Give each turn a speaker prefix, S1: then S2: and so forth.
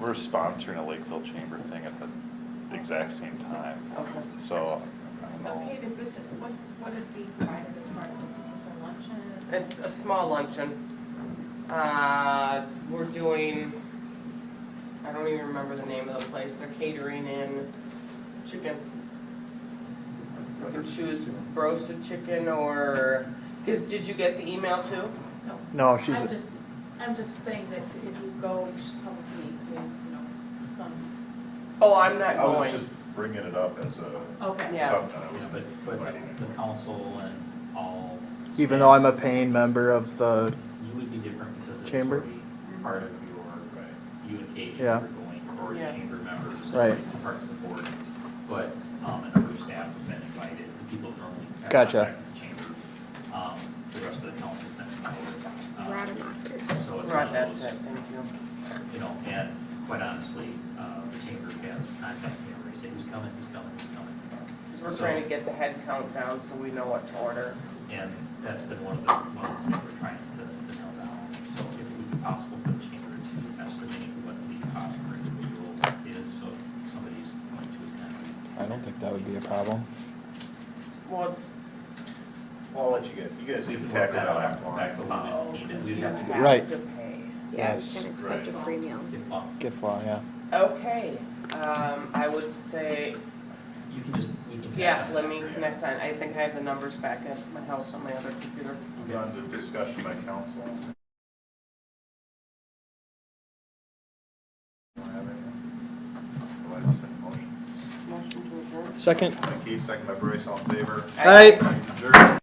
S1: we're sponsoring a Lakeville Chamber thing at the exact same time,
S2: Okay.
S1: so. I don't
S3: So
S1: know.
S3: Kate, is this, what, what is being provided as part of this? Is this a luncheon?
S2: It's a small luncheon. Uh, we're doing, I don't even remember the name of the place, they're catering in chicken. You can choose roasted chicken or, cause did you get the email too?
S3: No.
S4: No, she's,
S3: I'm just, I'm just saying that if you go, you should probably, include, you know, some,
S2: Oh, I'm not
S1: I was
S2: going.
S1: just bringing it up as a
S3: okay.
S2: Yeah.
S1: something, I
S5: Yeah,
S1: was
S5: but, but
S1: inviting it.
S5: the council and all.
S4: even though I'm a paying member of the,
S5: You would be different because it's
S4: Chamber?
S5: already part of your, you and Kate, if you're
S4: Yeah.
S5: going, or the
S2: Yeah.
S5: chamber members.
S4: Right.
S5: Parts of the board, but, um, and other staff have been invited, the people who normally. have
S4: Gotcha.
S5: contact with the Chamber, um, the rest of the council's been invited. Um, So it's one
S2: Right,
S5: of
S2: that's
S5: those,
S2: it, thank you.
S5: you know, and quite honestly, uh, the chamber has contacted me, and they say, who's coming, who's coming, who's coming?
S2: we we're
S5: So-
S2: trying to get the head count down so we know what to order.
S5: And that's been one of the, one of the things we're trying to, to nail down. So if it would be possible for the chamber to estimate what the cost per individual is, so if somebody's going to attend.
S4: I don't think that would be a problem.
S2: Well, it's,
S1: Well, I'll let you get, you guys
S5: We
S1: can
S5: can
S1: tackle
S5: work
S1: that
S5: that out.
S1: offline.
S2: oh, because
S5: We'd
S2: you
S5: have to-
S2: have
S4: Right.
S2: to pay.
S6: Yeah,
S4: Yes.
S6: and accept a
S1: Right.
S6: free meal.
S5: If, um,
S4: Gift law, yeah.
S2: Okay, um, I would say
S5: you can just, we can.
S2: Yeah, let me connect on, I think I have the numbers back at my house on my other computer.
S1: Move on to discussion by council. Don't have anything. Go ahead and send motions.
S2: Motion to adjourn.
S4: Second?
S1: By Keith, second by Bryce, all in favor?
S4: Aye.
S1: Adjourned.